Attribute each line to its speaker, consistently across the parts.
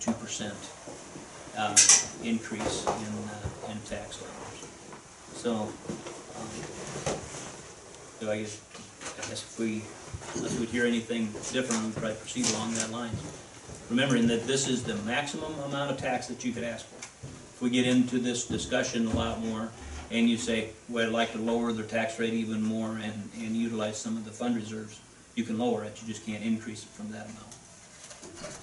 Speaker 1: two percent um, increase in, uh, in tax dollars. So, um, do I guess, I guess if we, unless we hear anything different, we'd probably proceed along that line. Remembering that this is the maximum amount of tax that you could ask for. If we get into this discussion a lot more, and you say, well, I'd like to lower their tax rate even more and, and utilize some of the fund reserves, you can lower it, you just can't increase it from that amount.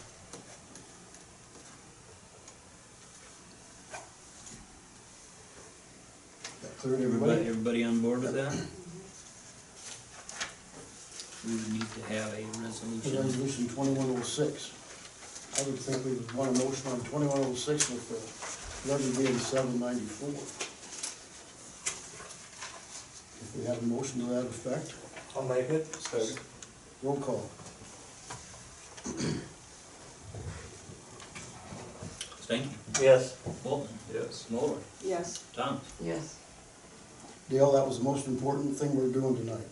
Speaker 2: That clear to
Speaker 1: Everybody,
Speaker 2: everybody?
Speaker 1: everybody on board with that? We would need to have a resolution.
Speaker 2: Resolution twenty-one oh six. I would think we would want a motion on twenty-one oh six with the levy being seven ninety-four. If we have a motion to that effect,
Speaker 3: I'll make it.
Speaker 2: roll call.
Speaker 1: Stanky,
Speaker 3: Yes.
Speaker 1: Bolton,
Speaker 3: Yes.
Speaker 1: Mulder,
Speaker 4: Yes.
Speaker 1: Thomas.
Speaker 4: Yes.
Speaker 2: Dale, that was the most important thing we're doing tonight.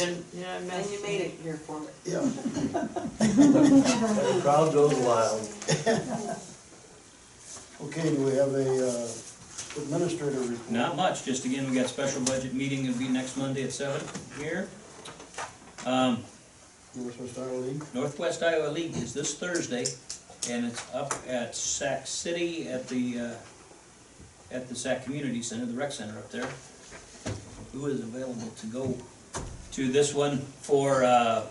Speaker 4: And you made it here for it.
Speaker 2: Yeah.
Speaker 3: The crowd goes wild.
Speaker 2: Okay, do we have a uh, administrator report?
Speaker 1: Not much, just again, we got special budget meeting, it'll be next Monday at seven here. Um,
Speaker 2: Northwest Iowa League?
Speaker 1: Northwest Iowa League is this Thursday, and it's up at Sac City at the, uh, at the Sac Community Center, the rec center up there. Who is available to go to this one for, uh,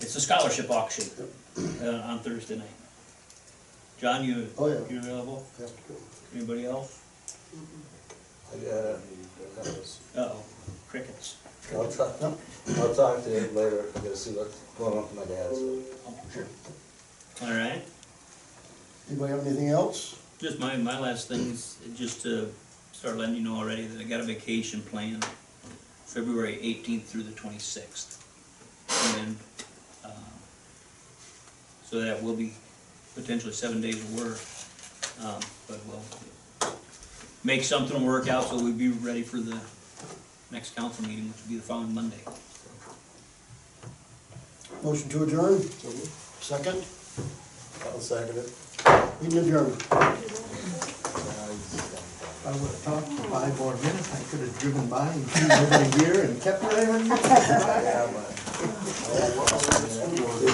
Speaker 1: it's a scholarship auction uh, on Thursday night. John, you,
Speaker 2: Oh, yeah.
Speaker 1: you available?
Speaker 2: Have to go.
Speaker 1: Anybody else?
Speaker 3: I got it.
Speaker 1: Uh-oh, crickets.
Speaker 3: I'll talk, I'll talk to him later, I'm gonna see what's going on with my dad's.
Speaker 1: Oh, sure. All right.
Speaker 2: Anybody have anything else?
Speaker 1: Just my, my last thing is just to start letting you know already that I got a vacation plan, February eighteenth through the twenty-sixth. And, um, so that will be potentially seven days of work, um, but we'll make something work out so we'll be ready for the next council meeting, which will be the following Monday.
Speaker 2: Motion to adjourn? Second?
Speaker 3: I'll second it.
Speaker 2: Meeting adjourned.
Speaker 5: I would have talked for five more minutes, I could have driven by and seen over here and kept right on.
Speaker 3: Yeah, but-